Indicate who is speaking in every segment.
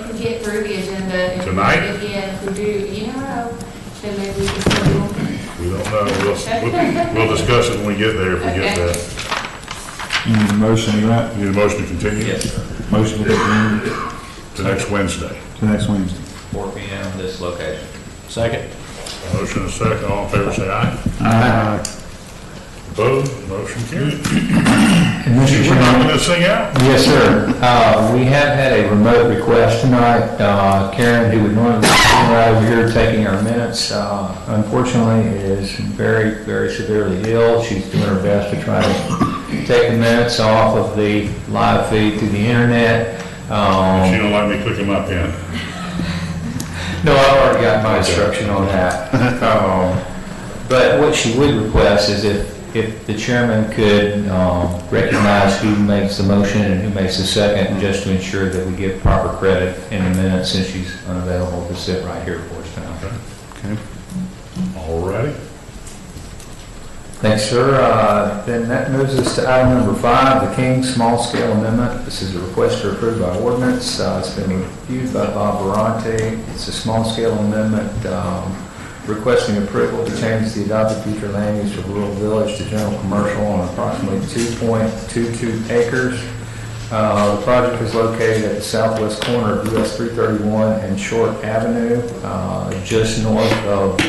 Speaker 1: get through the agenda. and
Speaker 2: Tonight?
Speaker 1: If we- yeah, if we do, you never know, then maybe we can schedule.
Speaker 2: We don't know, we'll, we'll- we'll discuss it when we get there, if we get there.
Speaker 3: You need a motion, right?
Speaker 2: Need a motion to continue?
Speaker 3: Motion to continue
Speaker 2: To next Wednesday.
Speaker 3: to next Wednesday.
Speaker 4: four P M, this location.
Speaker 5: Second.
Speaker 2: Motion and second, all in favor, say aye.
Speaker 3: Aye.
Speaker 2: Opposed, motion carried.
Speaker 6: Mr.
Speaker 2: We're
Speaker 6: Chairman,
Speaker 2: knocking this thing out.
Speaker 6: Yes, sir. Uh, We have had a remote request tonight. Uh, Karen, who would normally be sitting right over here taking our minutes, uh, unfortunately is very, very severely ill. She's doing her best to try to take the minutes off of the live feed through the internet.
Speaker 2: She
Speaker 6: Um,
Speaker 2: don't like me clicking my pen.
Speaker 6: No, I've already got my instruction on that. Um, But what she would request is if, if the chairman could um, recognize who makes the motion and who makes the second, just to ensure that we give proper credit in the minutes since she's unavailable to sit right here for us now.
Speaker 2: All righty.
Speaker 6: Thanks, sir. Uh, Then that moves us to item number five, the King Small Scale Amendment. This is a request to approve by ordinance. Uh, It's been reviewed by Bob Barante. It's a small scale amendment um, requesting approval to change the adopted future land use of rural village to general commercial on approximately 2.22 acres. Uh, The project is located at the southwest corner of US 331 and Short Avenue, uh, just north of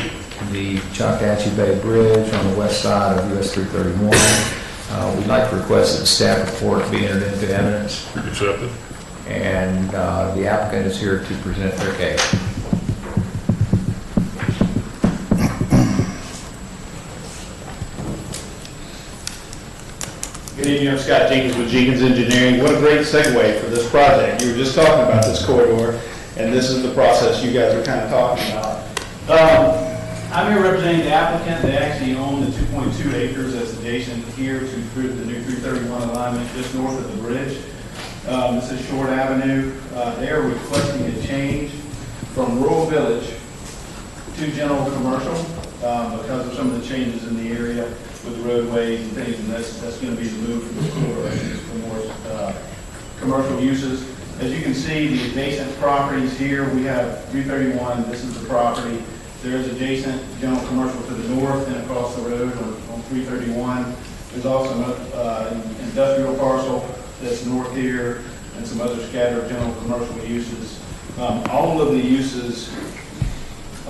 Speaker 6: the Choctachi Bay Bridge on the west side of US 331. Uh, We'd like to request that the staff report be entered into evidence,
Speaker 2: Accepted.
Speaker 6: and uh, the applicant is here to present their case.
Speaker 7: Good evening, I'm Scott Jenkins with Jenkins Engineering. What a great segue for this project. You were just talking about this corridor, and this is the process you guys were kind of talking about.
Speaker 8: Um, I'm here representing the applicant, they actually own the 2.2 acres as adjacent here to through the new 331 alignment just north of the bridge. Um, This is Short Avenue, Uh, they are requesting a change from rural village to general commercial um, because of some of the changes in the area with the roadways and things, and that's, that's going to be the move from the corridor for more uh, commercial uses. As you can see, the adjacent properties here, we have 331, this is the property. There is adjacent general commercial to the north and across the road on on 331. There's also an industrial parcel that's north here and some other scattered general commercial uses. Um, All of the uses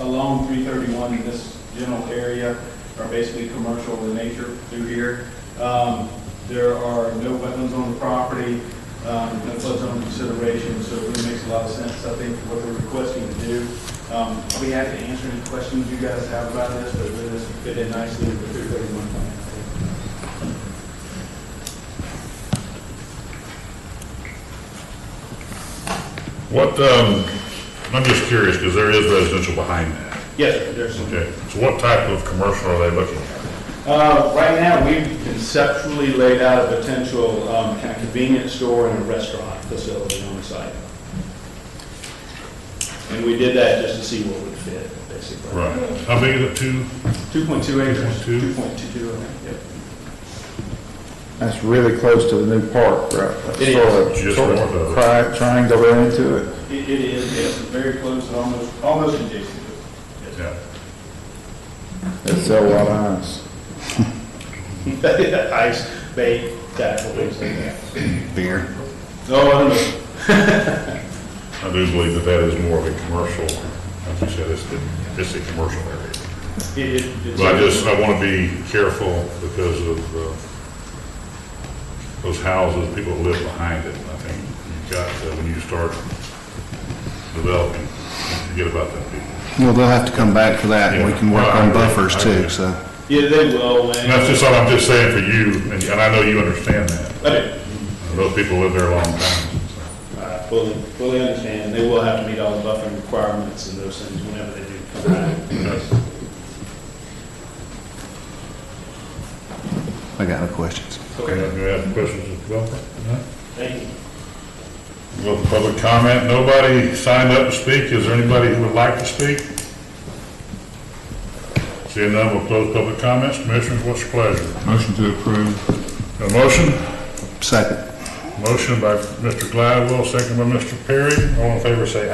Speaker 8: along 331 in this general area are basically commercial in nature through here. Um, There are no wetlands on the property, um, no flood zone consideration, so it really makes a lot of sense, I think, what they're requesting to do. Um, I'll be happy to answer any questions you guys have about this, but really this fit in nicely with the 331 plan.
Speaker 2: What, um, I'm just curious, because there is residential behind that.
Speaker 8: Yes, sir, there's some
Speaker 2: Okay, so what type of commercial are they looking at?
Speaker 8: Uh, Right now, we've conceptually laid out a potential um, kind of convenience store and a restaurant facility on the site. And we did that just to see what would fit, basically.
Speaker 2: Right. How big is it, two?
Speaker 8: 2.2 acres.
Speaker 2: 2.2.
Speaker 8: 2.22, yep.
Speaker 3: That's really close to the new park, right?
Speaker 8: It is.
Speaker 3: Sort of-
Speaker 2: Just
Speaker 3: sort of
Speaker 2: north of it.
Speaker 3: tri- Triangle there into it.
Speaker 8: It it is, yes, very close, almost, almost adjacent to it. Yes.
Speaker 2: Yeah.
Speaker 3: They sell a lot of ice.
Speaker 8: Ice, bait, tackle, things like that. Beer? No, I don't know.
Speaker 2: I do believe that that is more of a commercial, like you said, it's, the- it's a commercial area.
Speaker 8: It- it- it's-
Speaker 2: But I just, I want to be careful because of uh, those houses, people who live behind it. And I think you've got, to, when you start developing, forget about that people.
Speaker 9: Well, they'll have to come back for that, and we can work on
Speaker 2: Yeah.
Speaker 9: buffers too,
Speaker 2: Okay.
Speaker 9: so.
Speaker 8: Yeah, they will,
Speaker 2: And that's
Speaker 8: and,
Speaker 2: just, all I'm just saying for you, and and I know you understand that.
Speaker 8: okay.
Speaker 2: Those people live there a long time. so.
Speaker 8: I fully, fully understand, they will have to meet all the buffering requirements and those things whenever they do come back.
Speaker 9: I got no questions.
Speaker 2: Do you have questions of developer?
Speaker 8: Thank you.
Speaker 2: Well, public comment, nobody signed up to speak. Is there anybody who would like to speak? Seeing none, we'll close public comments. Commissioners, what's your pleasure?
Speaker 3: Motion to approve.
Speaker 2: A motion?
Speaker 9: Second.
Speaker 2: Motion by Mr. Gladwell, second by Mr. Perry. All in favor, say aye.